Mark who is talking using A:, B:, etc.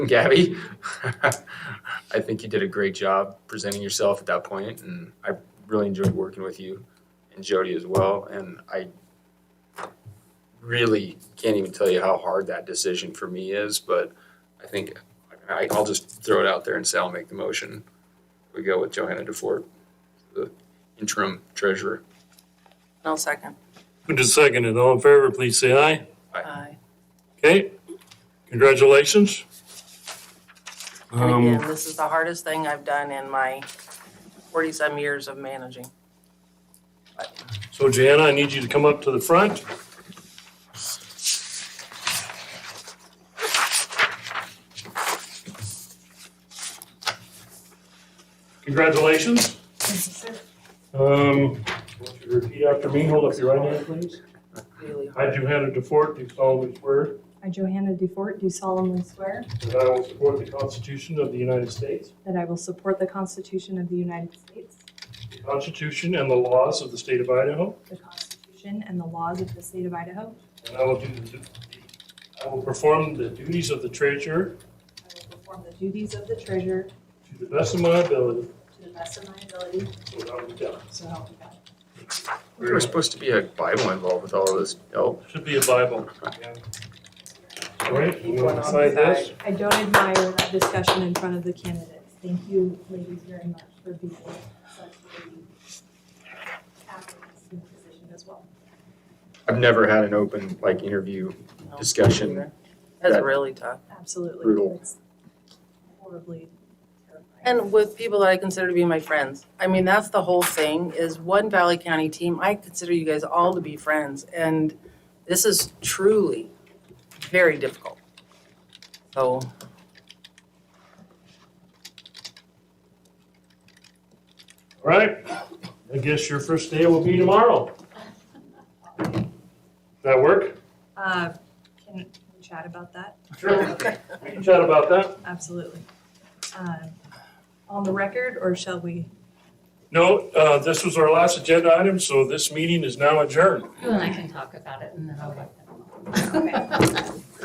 A: Gabby, I think you did a great job presenting yourself at that point, and I really enjoyed working with you and Jody as well. And I really can't even tell you how hard that decision for me is, but I think I, I'll just throw it out there and say I'll make the motion. We go with Johanna DeFort, the interim treasurer.
B: I'll second.
C: Who just seconded? All in favor, please say aye.
B: Aye.
C: Okay, congratulations.
B: And
C: Um,
B: again, this is the hardest thing I've done in my forty-some years of managing.
C: so Joanna, I need you to come up to the front. Congratulations. Um, want you to repeat after me. Hold up your right hand, please.
B: Really hard.
C: I, Johanna DeFort, do solemnly swear
D: I, Johanna DeFort, do solemnly swear
C: that I will support the Constitution of the United States
D: that I will support the Constitution of the United States,
C: The Constitution and the laws of the state of Idaho,
D: the Constitution and the laws of the state of Idaho.
C: and I will do the, I will perform the duties of the treasurer
D: I will perform the duties of the treasurer
C: to the best of my ability
D: to the best of my ability,
C: without a doubt.
D: so help me God.
A: There was supposed to be a Bible involved with all of this. Oh,
C: Should be a Bible. All right, you
B: One on
C: want to
B: the
C: sign this?
D: I don't admire that discussion in front of the candidates. Thank you, ladies, very much for being such a advocates in the position as well.
A: I've never had an open like interview
B: No.
A: discussion.
B: That's really tough.
D: Absolutely.
A: Brutal.
D: It's Horribly terrifying.
B: And with people that I consider to be my friends. I mean, that's the whole thing, is one Valley County team, I consider you guys all to be friends. And this is truly very difficult. So,
C: All right, I guess your first day will be tomorrow. That work?
D: Uh, Can we chat about that?
C: Sure. We can chat about that.
D: Absolutely. Uh, On the record, or shall we?
C: No, uh, this was our last agenda item, so this meeting is now adjourned.
E: You and I can talk about it and then I'll let them know.
D: Okay.